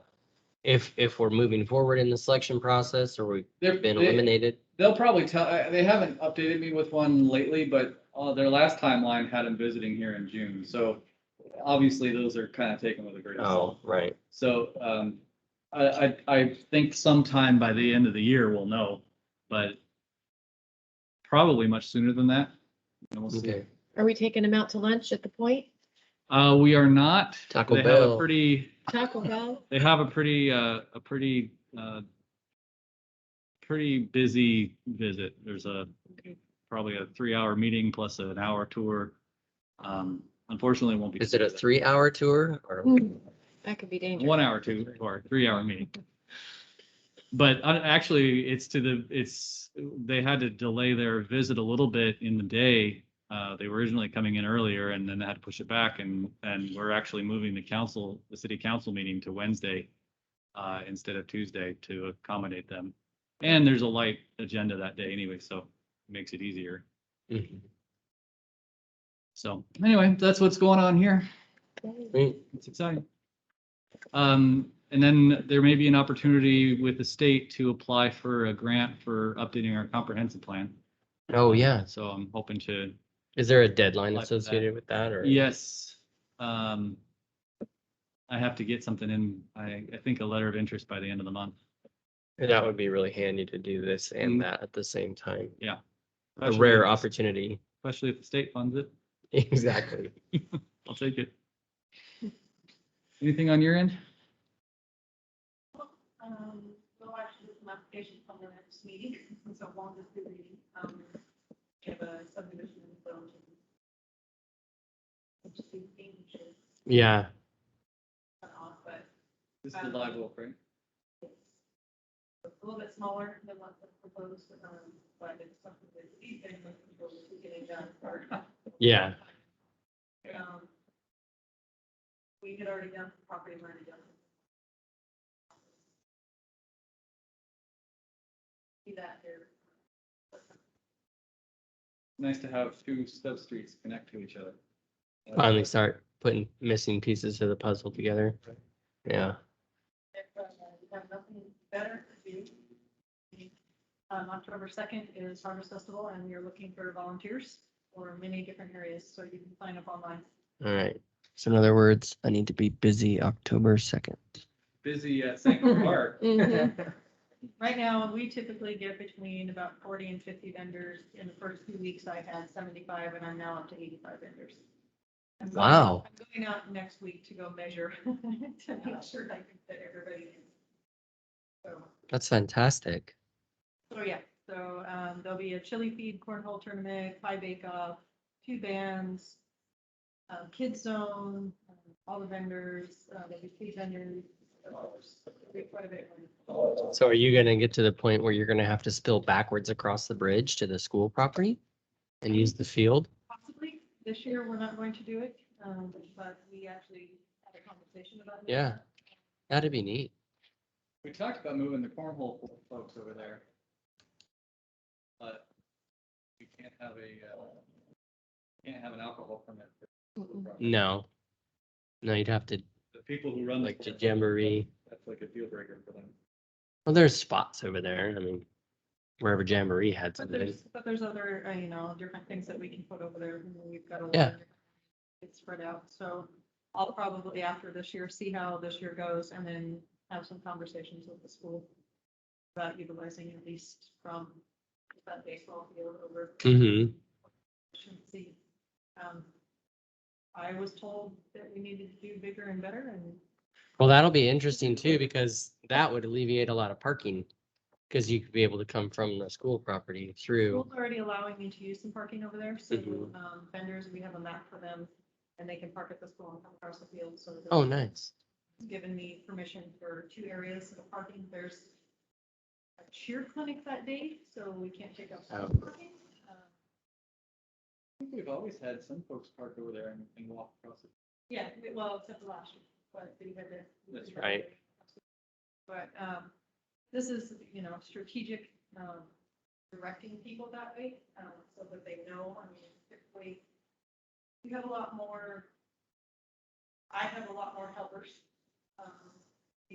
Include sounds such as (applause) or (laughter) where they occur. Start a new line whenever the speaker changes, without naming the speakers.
If, if we're moving forward in the selection process or we've
They're-
been
They,
eliminated,
they'll probably tell, I- they haven't updated me with one lately, but uh, their last timeline had them visiting here in June. So obviously those are kind of taken with a grain of salt.
oh, right,
So um, I, I, I think sometime by the end of the year we'll know, but probably much sooner than that. And we'll see.
okay,
Are we taking them out to lunch at the point?
Uh, we are not.
Taco
They have a
Bell.
Pretty,
Taco Bell?
they have a pretty, uh, a pretty, uh, pretty busy visit. There's a, probably a three-hour meeting plus an hour tour. Um, unfortunately, it won't be.
is it a three hour tour or?
Hmm, That could be dangerous.
One hour, two, or three-hour meeting. But uh, actually, it's to the, it's, they had to delay their visit a little bit in the day. Uh, they were originally coming in earlier and then they had to push it back and, and we're actually moving the council, the city council meeting to Wednesday uh, instead of Tuesday to accommodate them. And there's a light agenda that day anyway, so it makes it easier.
Mhm.
So anyway, that's what's going on here.
Okay.
Mm,
It's exciting. Um, and then there may be an opportunity with the state to apply for a grant for updating our comprehensive plan.
Oh, yeah.
So I'm hoping to,
Is there a deadline
Like that.
associated with that or?
yes. Um, I have to get something in, I, I think a letter of interest by the end of the month.
That would be really handy to do this and
Mm.
that at the same time. A
Especially
rare
if-
opportunity. (laughs)
Especially if the state funds it,
Exactly.
I'll take it. Anything on your end?
Um, we'll actually do some applications from the next meeting, (laughs) so one is the, um, we have a subdivision in Burlington. Which is being issued,
Yeah,
but off, but
This
is the live
oak, right?
it's a little bit smaller than what was proposed, um, but it's something that we've been looking forward to getting done. for-
yeah.
Um, We had already done the property line adjustment. See that here.
Nice to have two sub-streets connect to each other.
Finally start putting missing pieces of the puzzle together. Yeah.
If uh, you have nothing better to do. Um, October second is Harvest Festival and we are looking for volunteers for many different areas, so you can sign up online.
All right. So in other words, I need to be busy October second.
Busy at Sanctuary Park. (laughs)
(laughs) Mhm.
Right now, we typically get between about forty and fifty vendors. In the first few weeks, I had seventy-five and I'm now up to eighty-five vendors. I'm going-
Wow.
I'm going out next week to go measure (laughs) to make sure I can fit everybody in. So.
That's fantastic.
So yeah, so um, there'll be a chili feed, cornhole tournament, pie bake off, two bands, um, kids zone, um, all the vendors, uh, there'll be food vendors. so it's a big part of it.
So are you gonna get to the point where you're gonna have to spill backwards across the bridge to the school property? And use the field?
Possibly, this year, we're not going to do it, um, but we actually had a conversation about. doing
Yeah.
that.
That'd be neat.
We talked about moving the cornhole folks over there. But we can't have a, uh, can't have an alcohol permit. for
Mm-mm.
No. No, you'd have to,
The people who run. the
like, to
cornhole,
jamboree.
That's like a deal breaker for them.
Well, there's spots over there. I mean, wherever Jamboree had
But
something.
there's, but there's other, uh, you know, different things that we can put over there. You know, We've got a lot.
Yeah.
of different- It's spread out. So I'll probably after this year, see how this year goes and then have some conversations with the school about utilizing at least from that baseball field over
Mm-hmm.
shouldn't see. Um, I was told that we needed to do bigger and better and
Well, that'll be interesting too, because that would alleviate a lot of parking. Cause you could be able to come from the school property through.
School's already allowing me to use some parking over there, so
Mhm.
um, vendors, we have a map for them, and they can park at the school and come across the field, so. the-
Oh, nice.
It's Given me permission for two areas of parking, there's a cheer clinic that day, so we can't take up.
Oh.
parking. Uh,
I think we've always had some folks park over there and, and walk across it.
Yeah, we- well, except for last year, but we had to.
That's
right.
But um, this is, you know, strategic um, directing people that way, um, so that they know, I mean, typically, you have a lot more, I have a lot more helpers um,